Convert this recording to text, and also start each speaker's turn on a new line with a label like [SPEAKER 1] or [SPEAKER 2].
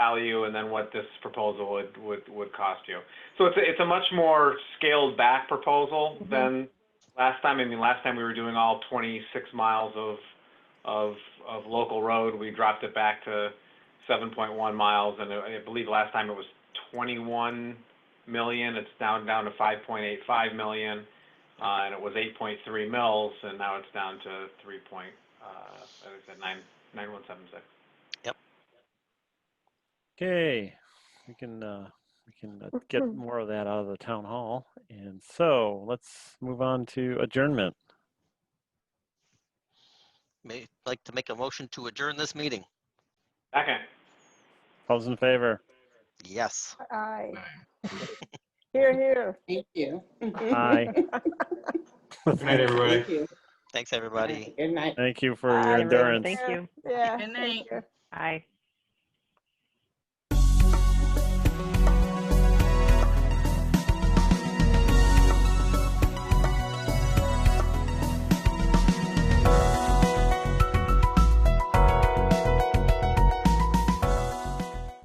[SPEAKER 1] value and then what this proposal would, would, would cost you. So it's a, it's a much more scaled back proposal
[SPEAKER 2] Mhm.
[SPEAKER 1] than last time. I mean, last time we were doing all 26 miles of, of, of local road. We dropped it back to 7.1 miles and I I believe last time it was 21 million. It's down, down to 5.85 million. Uh, and it was 8.3 mils and now it's down to 3 point, uh, I said 9, 9176.
[SPEAKER 3] Okay, we can, uh, we can uh, get
[SPEAKER 2] Mhm.
[SPEAKER 3] more of that out of the town hall. And so let's move on to adjournment.
[SPEAKER 4] May, like to make a motion to adjourn this meeting?
[SPEAKER 1] Okay.
[SPEAKER 3] All those in favor?
[SPEAKER 4] Yes.
[SPEAKER 2] Aye. Here, here.
[SPEAKER 5] Thank you.
[SPEAKER 3] Aye.
[SPEAKER 6] Good night, everybody.
[SPEAKER 5] Thank you.
[SPEAKER 4] Thanks, everybody.
[SPEAKER 5] Good night.
[SPEAKER 3] Thank you for
[SPEAKER 2] Aye,
[SPEAKER 3] your
[SPEAKER 2] everyone.
[SPEAKER 3] endurance.
[SPEAKER 2] Thank you. Yeah. thank
[SPEAKER 7] Good night.
[SPEAKER 2] you.
[SPEAKER 7] Aye.